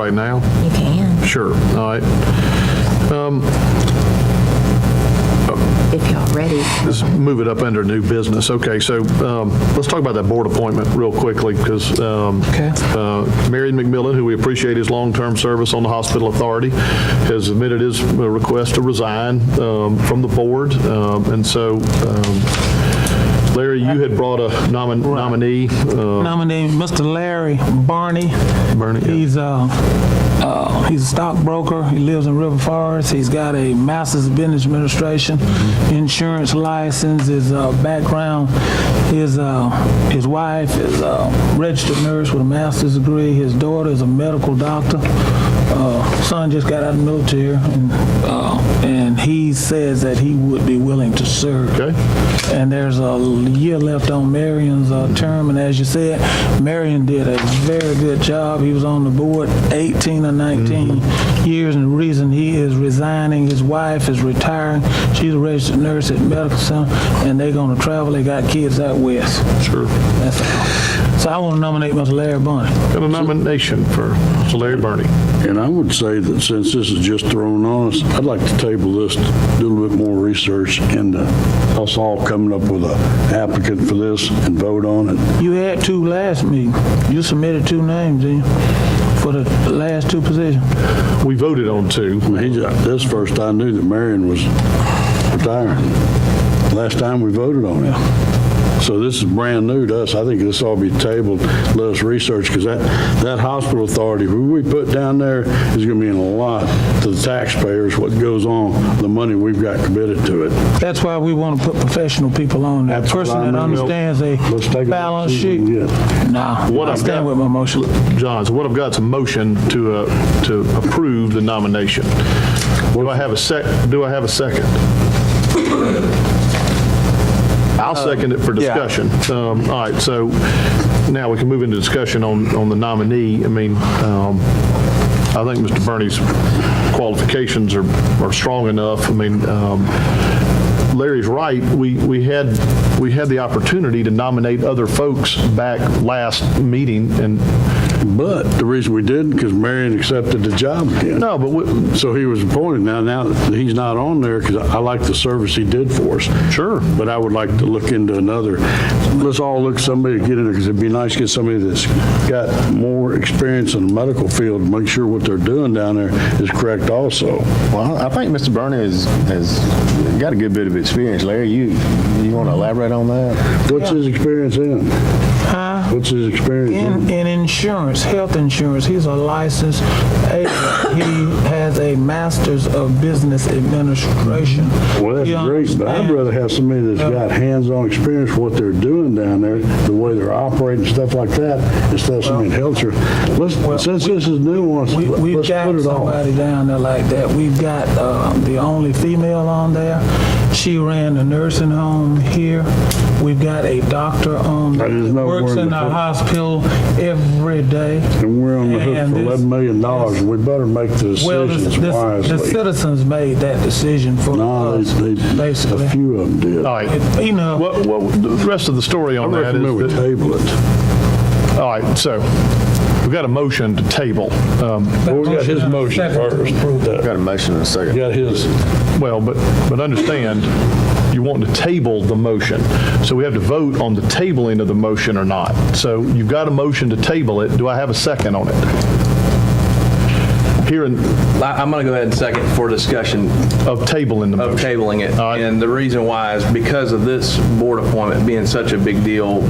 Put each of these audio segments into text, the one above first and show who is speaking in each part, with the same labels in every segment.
Speaker 1: right now?
Speaker 2: You can,
Speaker 1: Sure, all right.
Speaker 2: if y'all ready.
Speaker 1: Let's move it up under new business. Okay, so um, let's talk about that board appointment real quickly, because
Speaker 3: Okay.
Speaker 1: Marion McMillan, who we appreciate his long-term service on the hospital authority, has submitted his uh, request to resign um, from the board, Um, and so um, Larry, you had brought a nomin- nominee, uh,
Speaker 3: Nominate Mr. Larry Barney.
Speaker 1: Bernie, yeah.
Speaker 3: He's uh, uh, he's a stockbroker. He lives in River Forest. He's got a master's in business administration, insurance license. His uh, background, his uh, his wife is a registered nurse with a master's degree. His daughter is a medical doctor. Uh, son just got out of the military, and, uh, and he says that he would be willing to serve.
Speaker 1: okay?
Speaker 3: And there's a year left on Marion's uh, term, and as you said, Marion did a very good job. He was on the board 18 or 19 years, and the reason he is resigning, his wife is retiring. She's a registered nurse at Medical Center, and they're going to travel. They got kids out west.
Speaker 1: Sure.
Speaker 3: That's all. So I want to nominate Mr. Larry Bunny.
Speaker 1: Got a nomination for Mr. Larry Bernie.
Speaker 4: And I would say that since this is just thrown on us, I'd like to table this, do a little bit more research into us all coming up with a applicant for this and vote on it.
Speaker 3: You had two last meeting. You submitted two names, didn't you, for the last two positions?
Speaker 1: We voted on two.
Speaker 4: I mean, he's- This first I knew that Marion was retiring. Last time we voted on it. So this is brand new to us. I think this ought to be tabled. Let us research, because that, that hospital authority, who we put down there is going to mean a lot to the taxpayers, what goes on, the money we've got committed to it.
Speaker 3: That's why we want to put professional people on there. A
Speaker 4: That's what
Speaker 3: person that
Speaker 4: I mean.
Speaker 3: understands a
Speaker 4: Let's take a
Speaker 3: balance sheet.
Speaker 4: decision, yeah.
Speaker 3: Nah,
Speaker 1: What
Speaker 3: I
Speaker 1: I've got-
Speaker 3: stand with my motion.
Speaker 1: John, so what I've got is a motion to, uh, to approve the nomination. Do I have a sec, do I have a second? I'll second it for discussion. Um, All right, so now we can move into discussion on, on the nominee. I mean, um, I think Mr. Bernie's qualifications are, are strong enough. I mean, um, Larry's right, we, we had, we had the opportunity to nominate other folks back last meeting, and
Speaker 4: But the reason we didn't, because Marion accepted the job again.
Speaker 1: No, but we-
Speaker 4: So he was appointed. Now, now that he's not on there, because I like the service he did for us.
Speaker 1: Sure.
Speaker 4: But I would like to look into another. Let's all look somebody, get it, because it'd be nice to get somebody that's got more experience in the medical field, make sure what they're doing down there is correct also.
Speaker 5: Well, I think Mr. Berner has, has got a good bit of experience. Larry, you, you want to elaborate on that?
Speaker 4: What's his experience in? What's his experience
Speaker 3: In,
Speaker 4: in?
Speaker 3: in insurance, health insurance, he's a licensed agent. He has a master's of business administration.
Speaker 4: Well,
Speaker 3: He
Speaker 4: that's great, but I'd
Speaker 3: understands-
Speaker 4: rather have somebody that's got hands-on experience with what they're doing down there, the way they're operating, stuff like that, instead of somebody in health care. Let's, since this is nuanced,
Speaker 3: We- We've
Speaker 4: let's put
Speaker 3: got
Speaker 4: it on.
Speaker 3: somebody down there like that. We've got uh, the only female on there. She ran the nursing home here. We've got a doctor on,
Speaker 4: I just know
Speaker 3: works
Speaker 4: we're in
Speaker 3: in
Speaker 4: the-
Speaker 3: our hospital every day.
Speaker 4: And we're on the hook
Speaker 3: And
Speaker 4: for
Speaker 3: this-
Speaker 4: eleven million dollars, we better make the
Speaker 3: Well, this-
Speaker 4: decisions
Speaker 3: this- the
Speaker 4: wisely.
Speaker 3: citizens made that decision for
Speaker 4: No,
Speaker 3: us,
Speaker 4: they, they, a
Speaker 3: basically.
Speaker 4: few of them did.
Speaker 1: all
Speaker 4: I
Speaker 1: right.
Speaker 3: It- You know.
Speaker 1: What, what, the rest of the story on that
Speaker 4: recommend we
Speaker 1: is, that-
Speaker 4: table it.
Speaker 1: all right, so we've got a motion to table. Um,
Speaker 3: that
Speaker 4: we got
Speaker 3: and
Speaker 4: his
Speaker 3: a
Speaker 4: motion
Speaker 3: second to
Speaker 4: first.
Speaker 3: approve it.
Speaker 5: Got a motion and a second.
Speaker 4: Got his,
Speaker 1: Well, but, but understand, you want to table the motion. So we have to vote on the tabling of the motion or not. So you've got a motion to table it. Do I have a second on it? Hearing
Speaker 6: I- I'm going to go ahead and second for discussion
Speaker 1: of tabling the
Speaker 6: of
Speaker 1: motion.
Speaker 6: tabling it.
Speaker 1: All right.
Speaker 6: And the reason why is because of this board appointment being such a big deal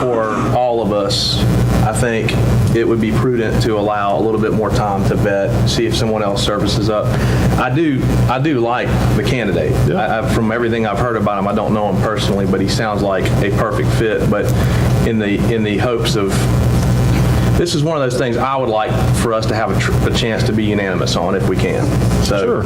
Speaker 6: for all of us, I think it would be prudent to allow a little bit more time to vet, see if someone else surfaces up. I do, I do like the candidate. I- I- From everything I've heard about him, I don't know him personally, but he sounds like a perfect fit. But in the, in the hopes of this is one of those things I would like for us to have a, tr- a chance to be unanimous on if we can. So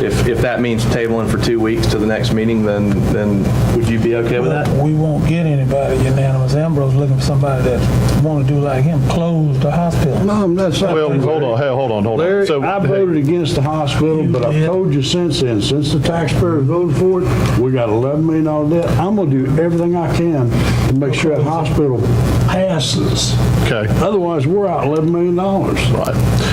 Speaker 6: if, if that means tabling for two weeks to the next meeting, then, then would you be okay with that?
Speaker 3: We won't get anybody unanimous. Ambrose looking for somebody that want to do like him, close the hospital.
Speaker 4: no, I'm not saying.
Speaker 1: Well, hold on, hey, hold on, hold on.
Speaker 4: Larry,
Speaker 1: So
Speaker 4: I voted against the hospital, but I've
Speaker 3: did.
Speaker 4: told you since then, since the taxpayers voted for it, we got eleven million dollar debt. I'm gonna do everything I can to make sure that hospital passes.
Speaker 1: Okay.
Speaker 4: Otherwise, we're out $11 million.
Speaker 1: Right.